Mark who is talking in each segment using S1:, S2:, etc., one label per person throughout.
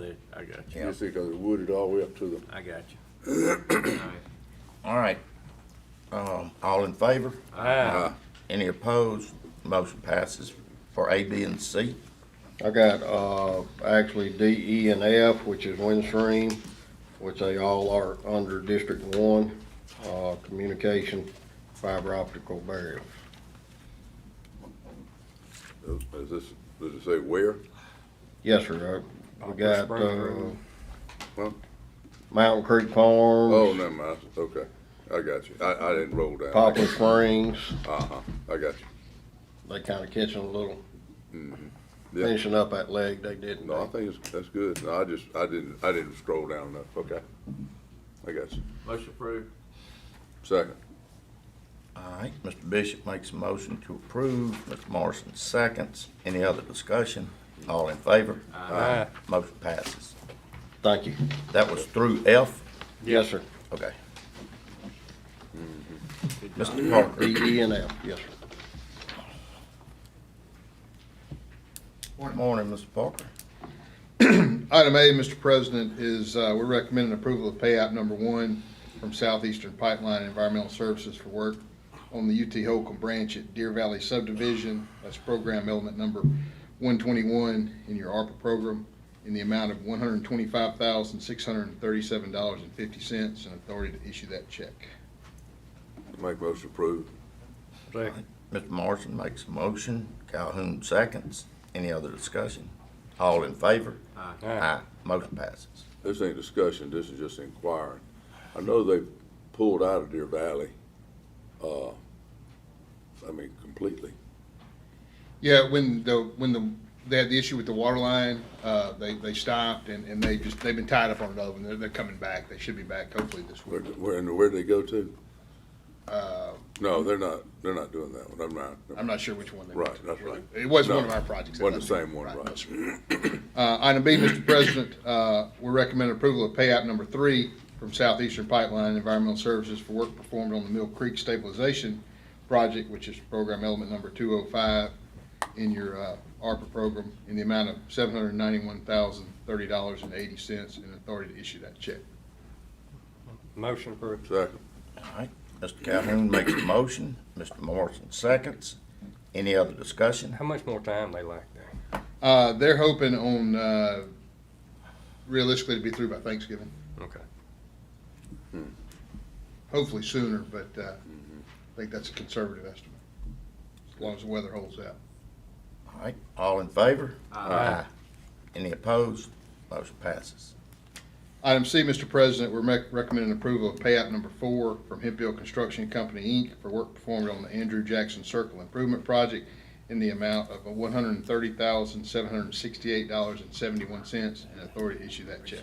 S1: it, I got you,
S2: Yeah.
S3: Just because it's wooded all the way up to the
S1: I got you.
S2: All right. Um, all in favor?
S1: Ah,
S2: Uh, Any opposed? Motion passes for A, B, and C.
S4: I got, uh, actually D, E, and F, which is Windstream, which they all are under District One, uh, communication fiber optical barrier.
S3: uh, Is this, does it say where?
S4: Yes, sir, uh, we got, uh,
S3: Huh?
S4: Mountain Creek Farms.
S3: Oh, never mind, okay, I got you, I, I didn't roll down.
S4: Poplar Springs,
S3: Uh-huh, I got you.
S4: they kinda catching a little,
S3: Mm-hmm. Yeah.
S4: finishing up that leg, they didn't.
S3: No, I think it's, that's good, no, I just, I didn't, I didn't scroll down enough, okay. I got you,
S1: motion approved.
S3: second,
S2: All right, Mr. Bishop makes a motion to approve, Mr. Morrison seconds. Any other discussion? All in favor? Aye. Motion passes.
S4: Thank you.
S2: That was through F?
S4: Yes, sir,
S2: Okay. Mr. Parker,
S4: D, E, and F, yes, sir.
S2: morning, Mr. Parker.
S5: Item A, Mr. President, is uh, we're recommending approval of payout number one from Southeastern Pipeline Environmental Services for work on the UT Holcomb branch at Deer Valley subdivision. That's program element number 121 in your ARPA program in the amount of $125,637.50 and authority to issue that check.
S3: make motion approved,
S2: Mr. Morrison makes a motion, Calhoun seconds. Any other discussion? All in favor? Aye. Motion passes.
S3: this ain't discussion, this is just inquiring. I know they pulled out of Deer Valley, uh, I mean, completely.
S5: Yeah, when the, when the, they had the issue with the water line, uh, they, they stopped and, and they just, they've been tied up on another one. They're, they're coming back. They should be back hopefully this
S3: Where,
S5: week.
S3: where, and where'd they go to?
S5: Uh,
S3: No, they're not, they're not doing that one, I'm not.
S5: I'm not sure which one they.
S3: Right, that's right.
S5: It wasn't one of
S3: No,
S5: our projects.
S3: Wasn't the same one,
S5: no,
S3: right.
S5: sir. Uh, item B, Mr. President, uh, we recommend approval of payout number three from Southeastern Pipeline Environmental Services for work performed on the Mill Creek Stabilization Project, which is program element number two oh five in your, uh, ARPA program in the amount of seven hundred ninety-one thousand, thirty dollars and eighty cents and authority to issue that check.
S6: Motion approved.
S3: Second,
S2: All right, Mr. Calhoun makes a motion, Mr. Morrison seconds. Any other discussion?
S6: How much more time they like there?
S5: Uh, they're hoping on, uh, realistically to be through by Thanksgiving. Hmm.
S6: Okay.
S5: hopefully sooner, but uh, I think that's a conservative estimate, as long as the weather holds out.
S2: All right, all in favor?
S6: Aye.
S2: Any opposed? Motion passes.
S5: Item C, Mr. President, we're mec- recommending approval of payout number four from Hempfield Construction Company, Inc. for work performed on the Andrew Jackson Circle Improvement Project in the amount of one hundred and thirty thousand, seven hundred and sixty-eight dollars and seventy-one cents, and authority to issue that check.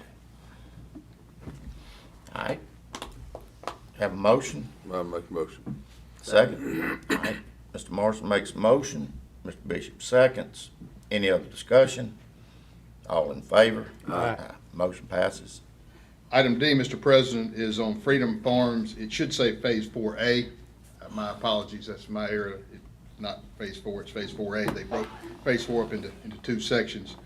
S2: All right. Have a motion,
S3: I make a motion,
S2: second. All right, Mr. Morrison makes a motion, Mr. Bishop seconds. Any other discussion? All in favor? Aye. Motion passes.
S5: Item D, Mr. President, is on Freedom Farms. It should say Phase 4A. Uh, My apologies, that's my error. It's not Phase 4, it's Phase 4A. They broke Phase 4 up into, into two sections.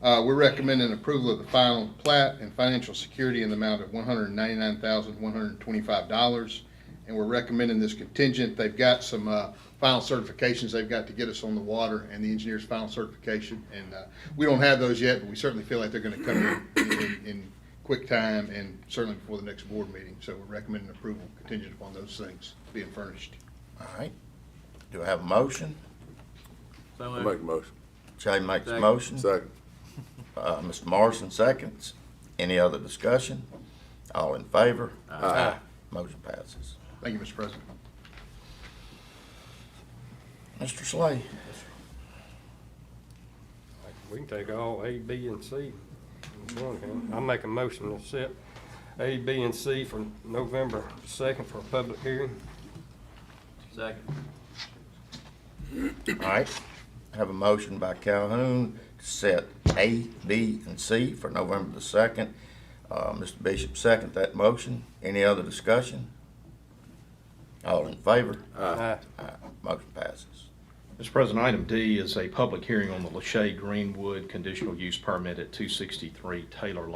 S5: Uh, We're recommending approval of the final plat and financial security in the amount of $199,125. And we're recommending this contingent. They've got some uh, final certifications they've got to get us on the water and the engineer's final certification. And uh, we don't have those yet, but we certainly feel like they're going to come in- in, in quick time and certainly before the next board meeting. So we're recommending approval contingent upon those things being furnished.
S2: All right. Do I have a motion?
S1: So
S3: I
S1: moved.
S3: make a motion,
S2: Jay makes a
S1: Second.
S2: motion.
S3: second,
S2: Uh, Mr. Morrison seconds. Any other discussion? All in favor? Aye. Motion passes.
S5: Thank you, Mr. President.
S2: Mr. Slay?
S6: We can take all A, B, and C. in one hand. I make a motion to set A, B, and C for November second for a public hearing.
S1: Second.
S2: All right. Have a motion by Calhoun to set A, B, and C for November the second. Uh, Mr. Bishop second that motion. Any other discussion? All in favor?
S6: Aye.
S2: Aye. Motion passes.
S5: Mr. President, item D is a public hearing on the Lachey Greenwood conditional use permit at 263 Taylor